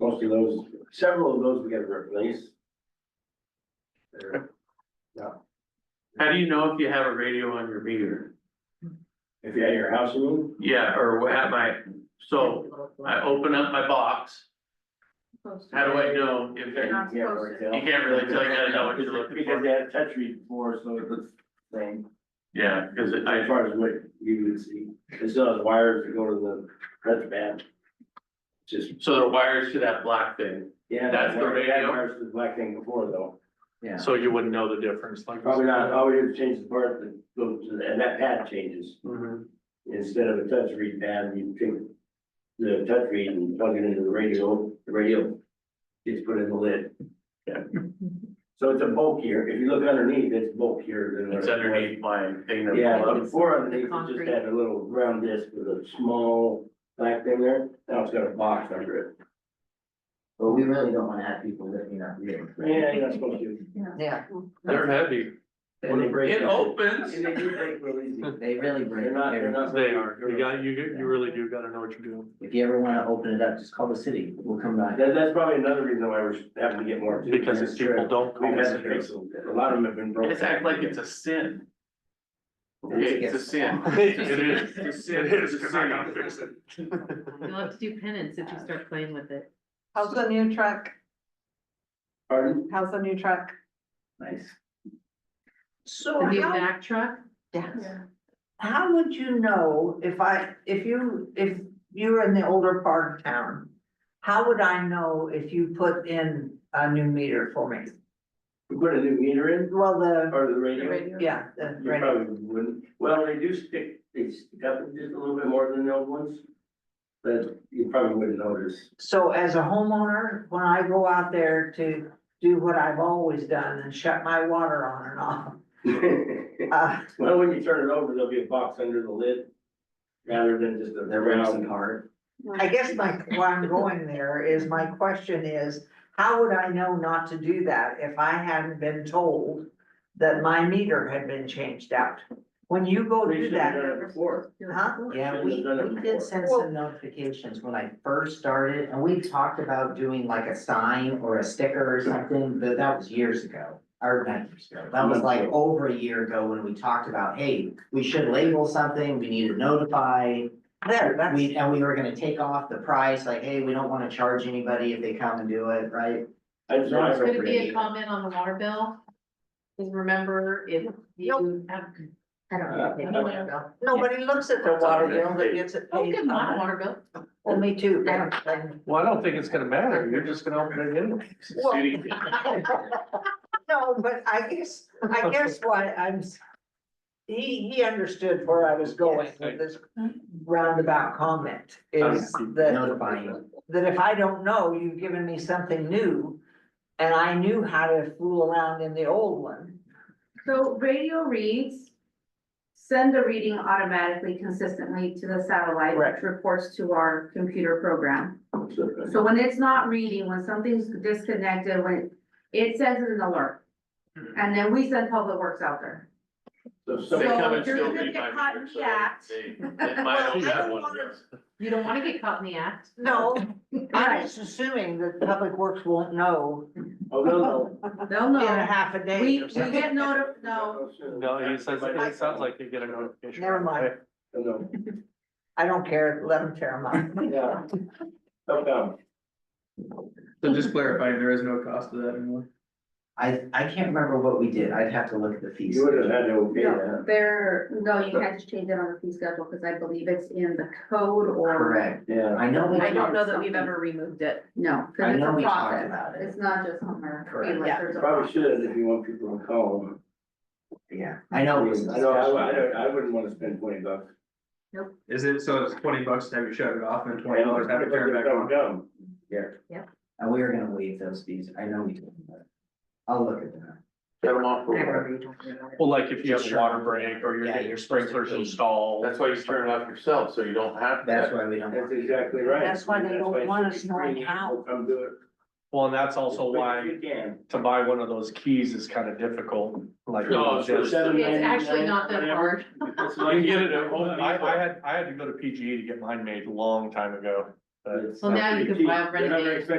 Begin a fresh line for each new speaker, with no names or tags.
most of those, several of those we gotta replace. They're-
How do you know if you have a radio on your meter?
If you had your house, you mean?
Yeah, or what have I, so I open up my box, how do I know if
Yeah,
it-
you can't really tell.
You can't really tell, you gotta know what you're looking for.
Because they had touch read before, so it's the same,
yeah, cause it-
as
I,
far as what you would see, it still has wires that go to the, that's bad. Just,
so there are wires to that black thing,
yeah.
That's the
they had
radio?
Wires to the black thing before though,
Yeah.
So you wouldn't know the difference, like.
probably not, all we did was change the part that goes to, the- and that pad changes,
Mhm.
instead of a touch read pad, you take. The touch read and plug it into the radio, the radio gets put in the lid.
Yeah.
So it's a bulkier, if you look underneath, it's bulkier than. what
it's
it was.
underneath my thing that.
Yeah,
plugs.
before underneath, it
Concrete.
just had a little round disc with a small black thing there, now it's got a box under it.
But we really don't wanna have people lifting up real.
Yeah, you're not supposed to.
Yeah.
They're heavy,
And they break.
It
And
opens,
they do break real easy.
They really break.
They're not, they're
everything.
not.
they are, you got, you, you really do gotta know what you're doing.
If you ever wanna open it up, just call the city, we'll come by.
That, that's probably another reason why we're having to get more. too.
Because if
That's
people
true.
don't
We've
call us,
had to- a lot of them have been broken.
it's act like it's a sin. Okay, it's a sin.
It is.
It's a sin.
it is,
It's a
'cause I
sin.
gotta fix it.
You'll have to do penance if you start playing with it.
How's the new truck?
Pardon?
How's the new truck?
Nice.
So
The new
how,
Mack truck,
Yes.
how would you know if I, if you, if you were in the older part of town? How would I know if you put in a new meter for me?
We put a new meter in,
Well, the,
or the
the
radio?
radio.
yeah, the,
You
right,
probably wouldn't, well, they do stick, they stick up just a little bit more than the old ones. But you probably wouldn't notice.
so as a homeowner, when I go out there to do what I've always done and shut my water on and off. Uh,
Well, when you turn it over, there'll be a box under the lid rather than just a.
They're racing hard.
I guess my, why I'm going there is, my question is, how would I know not to do that if I hadn't been told that my meter had been changed out? When you go
We
do
Oh, should have
that,
done it before.
huh?
Yeah,
Shouldn't
we,
have done it
we
before.
did send some notifications when I first started, and we talked about doing like a sign or a sticker or something, but that was years ago. Or not years ago, that was like over a year ago when we talked about, hey, we should label something, we need to notify.
There, that's,
We, and we were gonna take off the price, like, hey, we don't wanna charge anybody if they come and do it, right?
I just want
It's
Could it be
to.
a comment on the water bill? Because remember, if you have, I don't know.
Uh,
I don't know.
nobody looks at their water bill that gets it
Oh,
paid.
good, my water bill.
Well, me too.
I don't-
Well, I don't think it's gonna matter, you're just gonna open it anyway.
Well, No, but I guess, I guess why I'm, s- he, he understood where I was going with this roundabout comment is that,
Notifying,
that if I don't know, you've given me something new. And I knew how to fool around in the old one.
So radio reads, send the reading automatically consistently to the satellite,
Right.
which reports to our computer program. So when it's not reading, when something's disconnected, when it sends an alert.
Hmm.
And then we send public works out there.
So
They
somebody-
come and
if you're
still
gonna
read
get
my
caught in
meter,
the
so
act-
they- they might only
Well, I
have
don't
one
wanna-
meter.
You don't want to get caught in the act.
No, I'm
Right,
just assuming that Public Works won't know
Oh, no, no.
they'll
in a
know.
half a day
We,
or
we
something.
get notified, no,
No, he says, it sounds like you get a notification.
Never mind.
Oh, No,
I don't care, let them tear them up.
yeah. Oh, no.
So just clarifying, there is no cost to that anymore.
I, I can't remember what we did, I'd have to look at the fees.
You would have had to okay
no,
that.
there, no, you can't just change it on the fee schedule, because I believe it's in the code or,
Correct,
Yeah.
I know we,
I
talked-
don't know that we've ever removed it.
no,
I
because it's
know
a
we talked
process.
about it,
It's not just Homer.
Correct.
Like, there's a
Probably
process.
should if you want people to call them.
yeah, I know. it was a
I know, I, I
discussion.
don't, I wouldn't wanna spend twenty bucks.
Is it, so it's twenty bucks to have you shut it off and twenty dollars to have it turned back
Don't
on?
come.
And we were gonna waive those fees, I know we did, but I'll look at that.
Set 'em off for
I
water.
remember you talking about it.
Well, like if you have a
Sure.
water break or you're
Yeah,
getting
you're
your
supposed to
sprinklers
pay.
installed.
That's why you turn it off yourself, so you don't have to.
That's why we don't.
That's exactly right.
That's why they don't
it
want
should
us
be
knowing
free.
how.
People Come do it.
Well, and that's also
As quick as
why
You can.
to buy one of those keys is kind of difficult, like.
No, it's just-
Seven
It's
ninety-nine,
actually not that
whatever.
hard.
It's
You
like-
can get it at Home
I, I
Depot.
had, I had to go to PGE to get E mine made a long time ago. but-
It's
Well, now you
not
can
cheap.
buy a
They're not very
Renegade.